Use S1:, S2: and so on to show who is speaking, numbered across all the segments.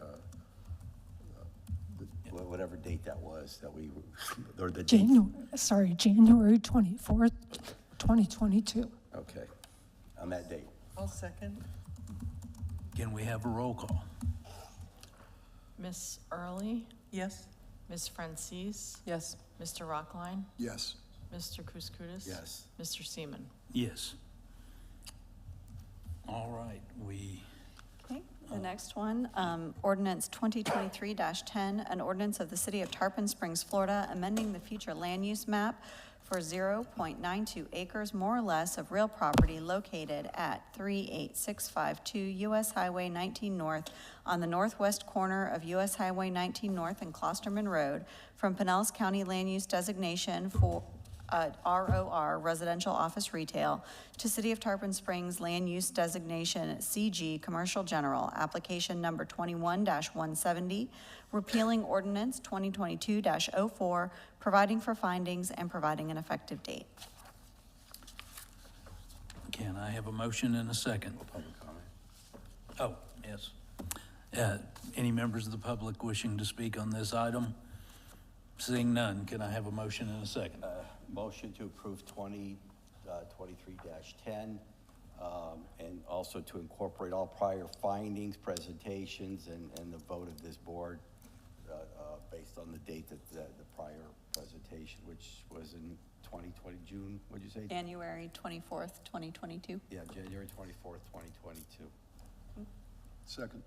S1: uh, whatever date that was, that we, or the date.
S2: January, sorry, January 24th, 2022.
S1: Okay, on that date.
S3: I'll second.
S4: Can we have a roll call?
S5: Miss Early,
S3: Yes?
S5: Miss Francis,
S3: Yes.
S5: Mr. Rockline,
S6: Yes.
S5: Mr. Kouskoudis.
S1: Yes.
S5: Mr. Seaman.
S4: Yes. All right, we,
S7: Okay, the next one, um, ordinance 2023-10, an ordinance of the City of Tarpon Springs, Florida, amending the future land use map for 0.92 acres more or less of real property located at 38652 US Highway 19 North on the northwest corner of US Highway 19 North and Closterman Road from Pinellas County Land Use Designation for, uh, ROR, Residential Office Retail, to City of Tarpon Springs Land Use Designation CG Commercial General, application number 21-170, repealing ordinance 2022-04, providing for findings and providing an effective date.
S4: can I have a motion and a second?
S1: Public comment?
S4: Oh, yes. Uh, Any members of the public wishing to speak on this item? Seeing none, can I have a motion and a second?
S1: Uh, Motion to approve twenty, uh, twenty-three dash ten, um, and also to incorporate all prior findings, presentations, and, and the vote of this board, uh, uh, based on the date that, the the prior presentation, which was in twenty twenty, June, what'd you say?
S7: January 24th, 2022.
S1: Yeah, January twenty-fourth, twenty twenty-two.
S6: Second.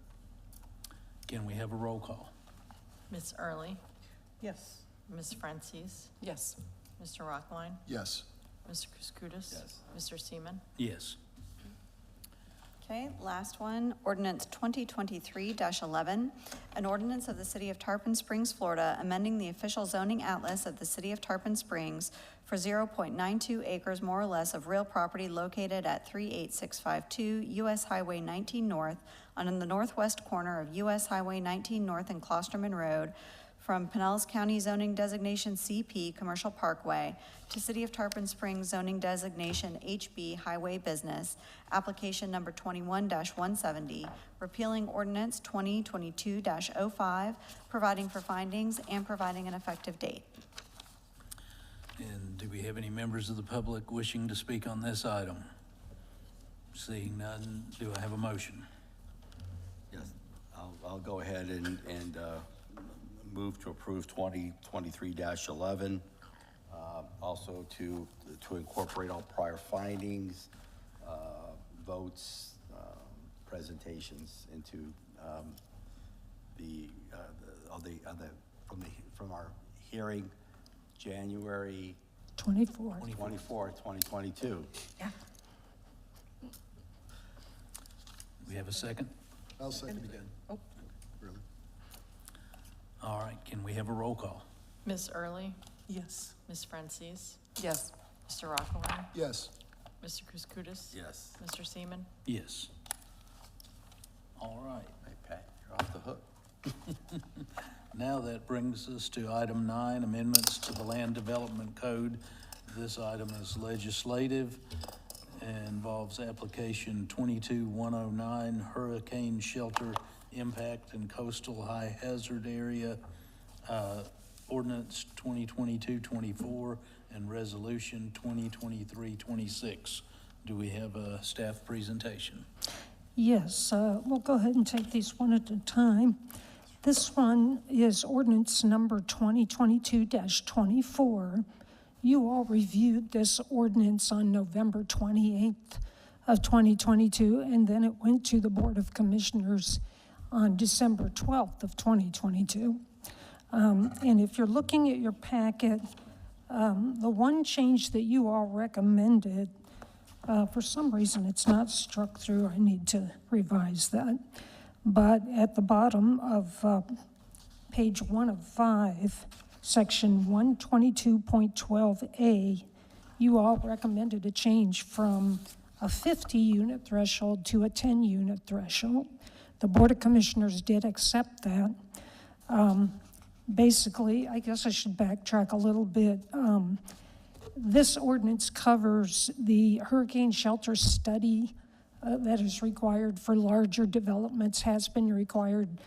S4: Can we have a roll call?
S5: Miss Early,
S3: Yes.
S5: Miss Francis,
S3: Yes.
S5: Mr. Rockline,
S6: Yes.
S5: Mr. Kouskoudis.
S1: Yes.
S5: Mr. Seaman.
S4: Yes.
S7: Okay, last one, ordinance 2023-11, an ordinance of the City of Tarpon Springs, Florida, amending the official zoning atlas of the City of Tarpon Springs for 0.92 acres more or less of real property located at 38652 US Highway 19 North on the northwest corner of US Highway 19 North and Closterman Road from Pinellas County zoning designation CP Commercial Parkway to City of Tarpon Springs zoning designation HB Highway Business, application number twenty-one one seventy, repealing ordinance twenty twenty-two 5 providing for findings and providing an effective date.
S4: And do we have any members of the public wishing to speak on this item? Seeing none, do I have a motion?
S1: Yes, I'll, I'll go ahead and, and uh, move to approve 2023-11. uh, Also to, to incorporate all prior findings, uh, votes, um, presentations into um, the, uh, the- of the, of the, from the, from our hearing, January
S2: 24th.
S1: 24th, 2022.
S4: We have a second?
S6: I'll second again.
S3: Oh,
S6: Really?
S4: All right, can we have a roll call?
S5: Miss Early,
S3: yes.
S5: Miss Francis,
S3: Yes.
S5: Mr. Rockline,
S6: Yes.
S5: Mr. Kouskoudis.
S1: Yes.
S5: Mr. Seaman.
S4: Yes. All right.
S1: Hey, Pat, you're off the hook.
S4: Now that brings us to item nine, amendments to the Land Development Code. This item is legislative, and involves application 22109 Hurricane Shelter Impact and Coastal High Hazard Area, uh, ordinance 2022-24, and resolution 2023-26. Do we have a staff presentation?
S2: Yes, uh, we'll go ahead and take these one at a time. This one is ordinance number 2022-24. You all reviewed this ordinance on November 28th of 2022, and then it went to the Board of Commissioners on December 12th of 2022. Um, And if you're looking at your packet, um, the one change that you all recommended uh, For some reason, it's not struck through. I need to revise that. But at the bottom of uh, page one of five, section 122.12A, you all recommended a change from a 50-unit threshold to a 10-unit threshold. The Board of Commissioners did accept that. Um, Basically, I guess I should backtrack a little bit. Um, this ordinance covers the hurricane shelter study uh, that is required for larger developments, has been required